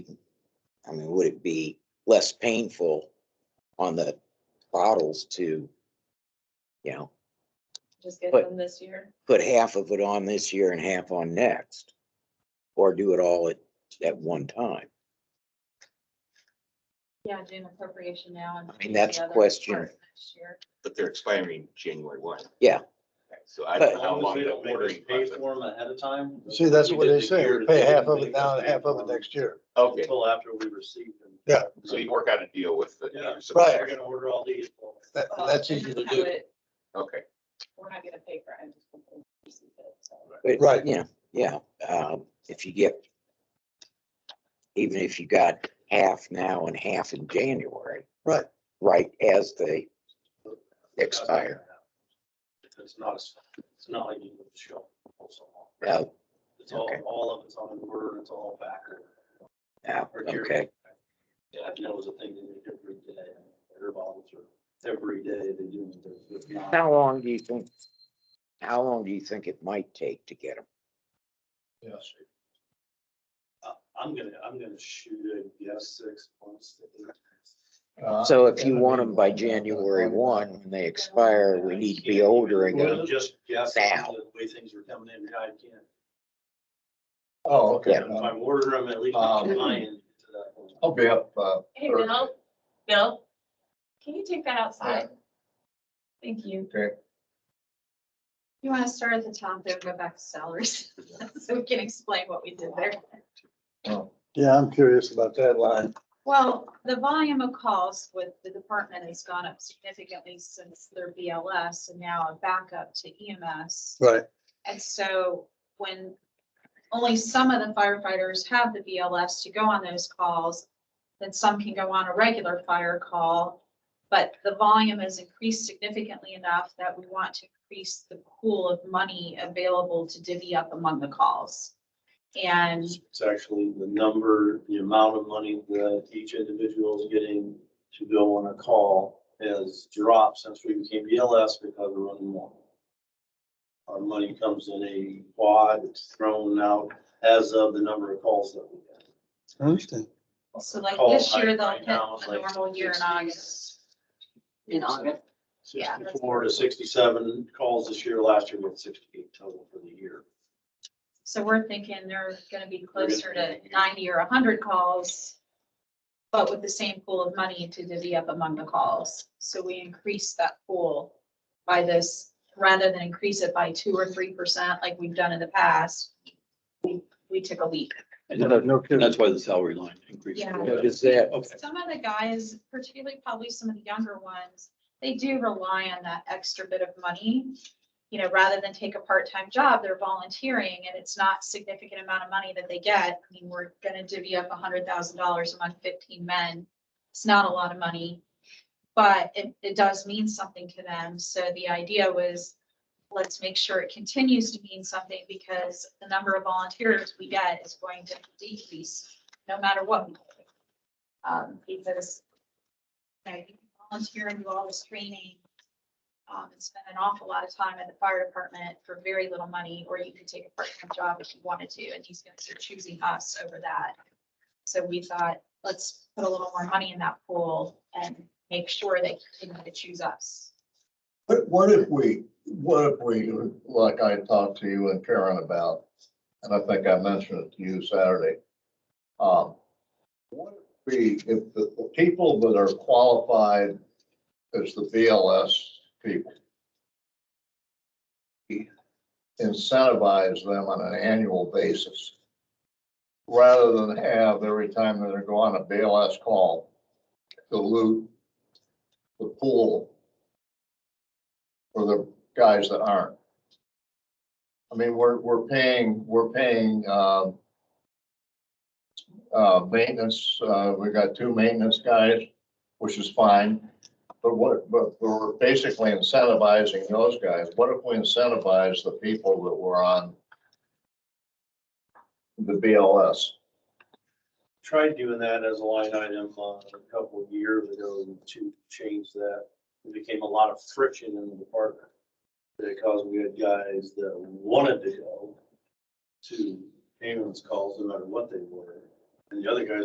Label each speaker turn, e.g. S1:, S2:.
S1: I mean, would it be less painful on the bottles to, you know,
S2: Just get
S1: But-
S2: them this year.
S1: put half of it on this year and half on next? Or do it all at, at one time?
S2: Yeah, do an appropriation now and.
S1: I mean,
S2: do the
S1: that's a
S2: other
S1: question.
S2: part next year.
S3: But they're expiring January one.
S1: Yeah.
S3: So I don't know
S1: But-
S3: how
S4: As long
S3: long
S4: as
S3: the
S4: they don't make us
S3: ordering
S4: Pay
S3: process.
S4: for them ahead of time.
S5: See, that's
S4: We
S5: what
S4: did
S5: they
S4: the
S5: say,
S4: year
S5: we
S4: that
S5: pay
S4: they
S5: half
S4: didn't
S5: of it
S4: make us
S5: now and
S4: pay
S5: half of
S4: for
S5: it
S4: 'em
S5: next year.
S3: Okay,
S4: Until after we receive them.
S5: Yeah.
S3: so you work out a deal with the.
S4: Yeah.
S5: Right.
S4: We're gonna order all these.
S5: That,
S2: Well,
S5: that's
S2: and
S5: easy to
S2: that's
S5: do.
S2: what-
S3: Okay,
S2: We're not gonna pay for it. just gonna receive it, so.
S1: But,
S5: Right.
S1: Yeah, yeah, um, if you get, even if you got half now and half in January,
S5: Right.
S1: right, as they expire.
S4: It's not, a- it's not like you would show. also.
S1: Uh,
S4: It's all,
S1: okay.
S4: all of it's on the word, it's all back.
S1: uh, okay,
S4: Yeah, and that was a thing that they did every day, their bottles are, every day they do. it. If not-
S1: how long do you think, how long do you think it might take to get them?
S5: Yes.
S4: Uh, I'm gonna, I'm gonna shoot a guess six months. to eight months.
S6: Uh,
S1: So if you want them by January
S6: um,
S1: one, when they expire, we need to be ordering them.
S4: Well, Just guess
S1: now.
S4: the way things are coming in, I can't.
S6: Oh, okay.
S4: If I order them, at least
S6: Um,
S4: I'm trying to that point.
S6: I'll be up, uh,
S2: Hey, Bill, Bill, can you take that outside? Thank you.
S6: Okay.
S2: You wanna start at the top there, go back to salaries, so we can explain what we did there.
S6: oh,
S5: Yeah, I'm curious about that line.
S2: Well, the volume of calls with the department has gone up significantly since their BLS and now a backup to E EMS.
S5: Right.
S2: And so when only some of the firefighters have the BLS to go on those calls, then some can go on a regular fire call. But the volume has increased significantly enough that we want to increase the pool of money available to divvy up among the calls. And
S4: It's actually the number, the amount of money that each individual is getting to go on a call has dropped since we became BLS because we're running more. Our money comes in a wad, it's thrown out as of the number of calls that we get.
S5: I understand.
S2: so like
S4: Call
S2: this year,
S4: height
S2: they'll
S4: right
S2: hit
S4: now is
S2: the
S4: like
S2: normal year in
S4: 60,
S2: August.
S7: in August.
S2: Yeah.
S4: Sixty-four to sixty-seven calls this year, last year we had sixty-eight total for the year.
S2: So we're thinking they're gonna be closer to ninety or hundred calls, but with the same pool of money to divvy up among the calls. So we increase that pool by this, rather than increase it by two or three percent like we've done in the past. We, we took a leap.
S5: No kidding.
S4: why the salary line increased.
S2: Yeah.
S1: Is that,
S2: Some of the guys, particularly probably some of the younger ones, they do rely on that extra bit of money. You know, rather than take a part-time job, they're volunteering and it's not significant amount of money that they get. I mean, we're gonna divvy up hundred thousand dollars among fifteen men. It's not a lot of money, but it, it does mean something to them. So the idea was, let's make sure it continues to mean something because the number of volunteers we get is going to decrease no matter what we do um, because you know, you can volunteer and do all this training, um, and spend an awful lot of time at the fire department for very little money, or you could take a part-time job if you wanted to, and these guys are choosing us over that. So we thought, let's put a little more money in that pool and make sure they continue to choose us.
S6: But what if we, what if we, like I talked to you and Karen about, and I think I mentioned it to you Saturday. Um, what if we, if the, the people that are qualified as the BLS people, incentivize them on an annual basis rather than have every time that they go on a BLS call, dilute the pool for the guys that aren't. I mean, we're, we're paying, we're paying, um, uh, maintenance, uh, we've got two maintenance guys, which is fine. But what, but we're basically incentivizing those guys. What if we incentivize the people that were on the BLS?
S4: tried doing that as a line item uh, a couple of years ago to change that. It became a lot of friction in the department because we had guys that wanted to go to ambulance calls no matter what they were. And the other guys